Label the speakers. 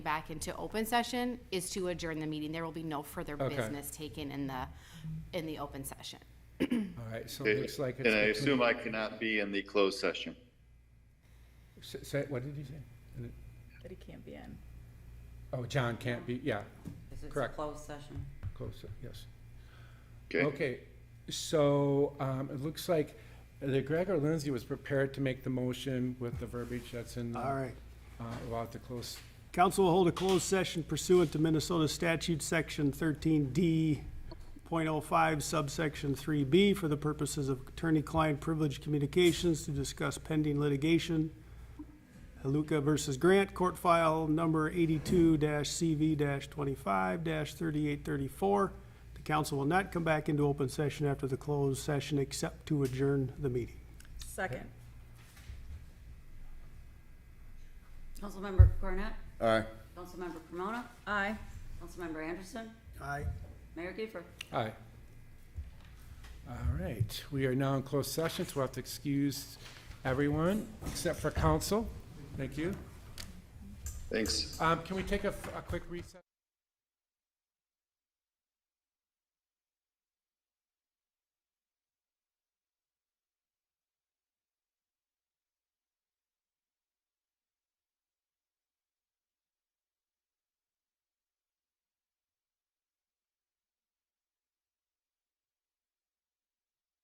Speaker 1: back into open session is to adjourn the meeting. There will be no further
Speaker 2: Okay.
Speaker 1: business taken in the, in the open session.
Speaker 2: All right, so it looks like it's.
Speaker 3: And I
Speaker 2: between-
Speaker 3: assume I cannot be in the closed session.
Speaker 2: S- Say, what did you say?
Speaker 4: that he can't be in.
Speaker 2: Oh, John can't be, yeah,
Speaker 5: Because it's a
Speaker 2: Correct.
Speaker 5: closed session.
Speaker 2: closer, yes.
Speaker 3: Okay?
Speaker 2: Okay, so, um, it looks like the Gregor Lindsay was prepared to make the motion with the verbiage that's in.
Speaker 6: All right.
Speaker 2: Uh, about the close,
Speaker 6: Council will hold a closed session pursuant to Minnesota Statute Section 13D.05 subsection 3B for the purposes of attorney-client privileged communications to discuss pending litigation. Haluka versus Grant, court file number 82-CV-25-3834. The council will not come back into open session after the closed session except to adjourn the meeting.
Speaker 4: Second.
Speaker 5: Councilmember Cornet?
Speaker 7: Aye.
Speaker 5: Councilmember Pomona?
Speaker 4: Aye.
Speaker 5: Councilmember Anderson?
Speaker 6: Aye.
Speaker 5: Mayor Giefer?
Speaker 2: aye. All right, we are now in closed session, so we'll have to excuse everyone except for council. Thank you.
Speaker 3: Thanks.
Speaker 2: Um, can we take a, f- a quick recess?